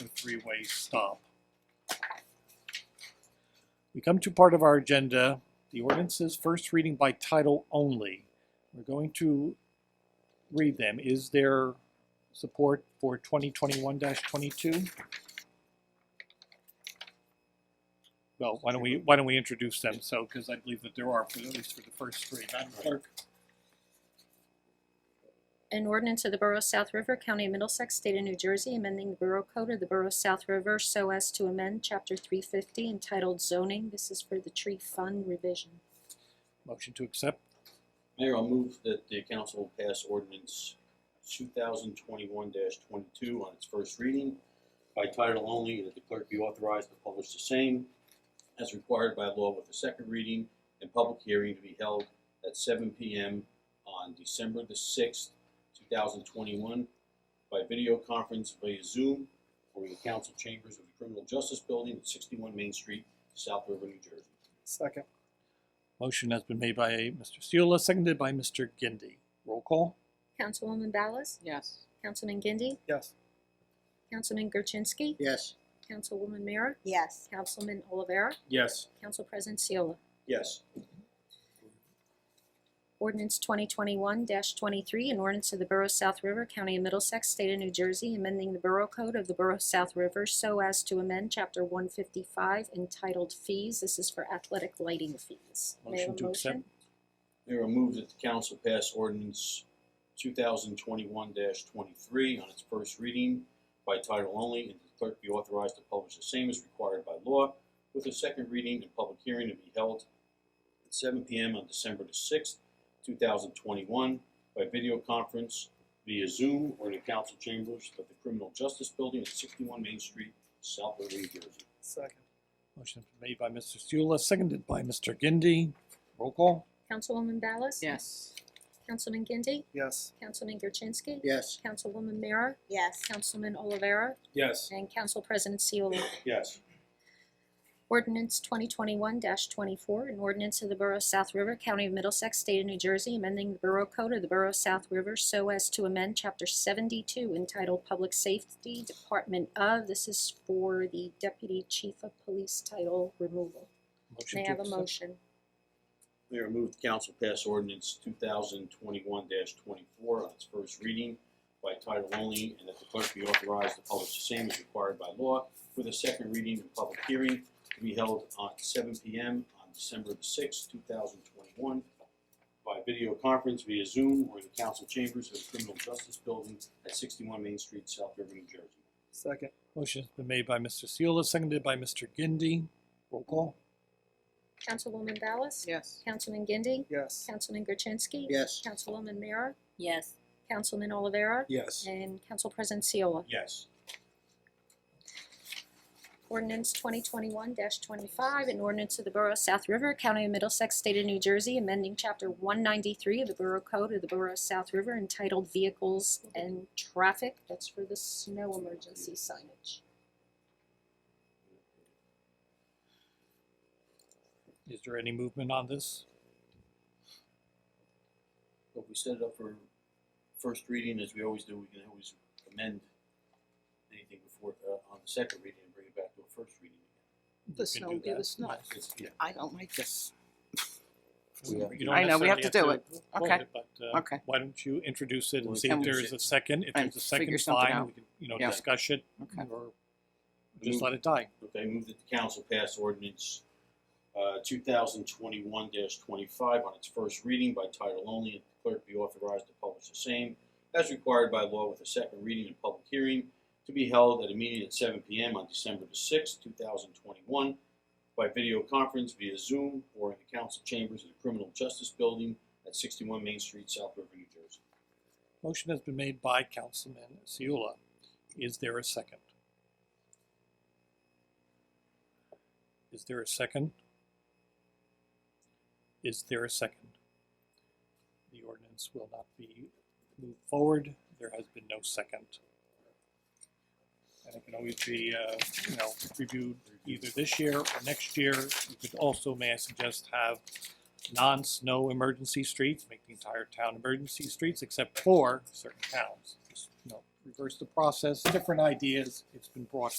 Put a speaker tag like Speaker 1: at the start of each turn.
Speaker 1: and three-way stop. We come to part of our agenda, the ordinances, first reading by title only. We're going to read them. Is there support for 2021-22? Well, why don't we, why don't we introduce them, so, because I believe that there are, for- at least for the first three. Madam Clerk?
Speaker 2: An ordinance of the Borough of South River, County of Middlesex, State of New Jersey, amending the Borough Code of the Borough of South River so as to amend Chapter 350 entitled zoning. This is for the tree fund revision.
Speaker 1: Motion to accept.
Speaker 3: Mayor, I'll move that the council pass ordinance two thousand twenty-one twenty-two on its first reading by title only, and that the clerk be authorized to publish the same as required by law with a second reading and public hearing to be held at seven P M on December the sixth, two thousand twenty-one by video conference via Zoom or in the council chambers of the Criminal Justice Building at sixty-one Main Street, South River, New Jersey.
Speaker 4: Second.
Speaker 1: Motion has been made by Mr. Seula, seconded by Mr. Gindi. Roll call?
Speaker 2: Councilwoman Ballas?
Speaker 5: Yes.
Speaker 2: Councilman Gindi?
Speaker 4: Yes.
Speaker 2: Councilman Gerchinsky?
Speaker 4: Yes.
Speaker 2: Councilwoman Mira?
Speaker 5: Yes.
Speaker 2: Councilman Olivera?
Speaker 3: Yes.
Speaker 2: Council President Seola?
Speaker 3: Yes.
Speaker 2: Ordinance 2021-23, an ordinance of the Borough of South River, County of Middlesex, State of New Jersey, amending the Borough Code of the Borough of South River so as to amend Chapter 155 entitled Fees. This is for athletic lighting fees. May I have a
Speaker 1: Motion to accept.
Speaker 3: Mayor, I move that the council pass ordinance two thousand twenty-one twenty-three on its first reading by title only, and the clerk be authorized to publish the same as required by law, with a second reading and public hearing to be held at seven P M on December the sixth, two thousand twenty-one, by video conference via Zoom or in the council chambers of the Criminal Justice Building at sixty-one Main Street, South River, New Jersey.
Speaker 4: Second.
Speaker 1: Motion made by Mr. Seula, seconded by Mr. Gindi. Roll call?
Speaker 2: Councilwoman Ballas?
Speaker 5: Yes.
Speaker 2: Councilman Gindi?
Speaker 4: Yes.
Speaker 2: Councilman Gerchinsky?
Speaker 4: Yes.
Speaker 2: Councilwoman Mira?
Speaker 5: Yes.
Speaker 2: Councilman Olivera?
Speaker 3: Yes.
Speaker 2: And Council President Seola?
Speaker 3: Yes.
Speaker 2: Ordinance 2021-24, an ordinance of the Borough of South River, County of Middlesex, State of New Jersey, amending the Borough Code of the Borough of South River so as to amend Chapter 72 entitled Public Safety Department of. This is for the Deputy Chief of Police title removal.
Speaker 1: Motion
Speaker 2: May I
Speaker 1: to
Speaker 2: have a
Speaker 1: accept.
Speaker 2: motion?
Speaker 3: Mayor, I move the council pass ordinance two thousand twenty-one twenty-four on its first reading by title only, and that the clerk be authorized to publish the same as required by law, with a second reading and public hearing to be held on seven P M on December the sixth, two thousand twenty-one, by video conference via Zoom or in the council chambers of the Criminal Justice Building at sixty-one Main Street, South River, New Jersey.
Speaker 4: Second.
Speaker 1: Motion's been made by Mr. Seula, seconded by Mr. Gindi. Roll call?
Speaker 2: Councilwoman Ballas?
Speaker 5: Yes.
Speaker 2: Councilman Gindi?
Speaker 4: Yes.
Speaker 2: Councilman Gerchinsky?
Speaker 4: Yes.
Speaker 2: Councilwoman Mira?
Speaker 5: Yes.
Speaker 2: Councilman Olivera?
Speaker 4: Yes.
Speaker 2: And Council President Seola?
Speaker 3: Yes.
Speaker 2: Ordinance 2021-25, an ordinance of the Borough of South River, County of Middlesex, State of New Jersey, amending Chapter 193 of the Borough Code of the Borough of South River entitled Vehicles and Traffic. That's for the snow emergency signage.
Speaker 1: Is there any movement on this?
Speaker 3: If we set it up for first reading, as we always do, we can always amend anything before, uh, on the second reading and bring it back to a first reading.
Speaker 5: The
Speaker 1: You can
Speaker 5: snow
Speaker 1: do
Speaker 5: will be
Speaker 1: that.
Speaker 5: the snow.
Speaker 3: It's, yeah,
Speaker 5: I don't like this.
Speaker 3: Yeah.
Speaker 1: You don't
Speaker 5: I know, we have
Speaker 1: necessarily
Speaker 5: to do
Speaker 1: to vote
Speaker 5: Okay.
Speaker 1: But, uh,
Speaker 5: Okay.
Speaker 1: why don't you introduce it and
Speaker 3: Well,
Speaker 1: see
Speaker 5: can
Speaker 1: if
Speaker 5: we
Speaker 1: there is
Speaker 3: sit-
Speaker 1: a second? If
Speaker 5: and
Speaker 1: there's a second,
Speaker 5: figure something
Speaker 1: fine,
Speaker 5: out.
Speaker 1: we can, you know,
Speaker 5: Yeah.
Speaker 1: discuss it
Speaker 5: Okay.
Speaker 1: or just
Speaker 5: Mm.
Speaker 1: let it die.
Speaker 3: okay, move that the council pass ordinance, uh, two thousand twenty-one twenty-five on its first reading by title only, and the clerk be authorized to publish the same as required by law with a second reading and public hearing to be held at a meeting at seven P M on December the sixth, two thousand twenty-one, by video conference via Zoom or in the council chambers of the Criminal Justice Building at sixty-one Main Street, South River, New Jersey.
Speaker 1: Motion has been made by Councilman Seula. Is there a second? Is there a second? Is there a second? The ordinance will not be moved forward. There has been no second. And it can always be, uh, you know, reviewed either this year or next year. You could also, may I suggest, have non-snow emergency streets, make the entire town emergency streets except for certain towns. Just, you know, reverse the process, different ideas, it's been brought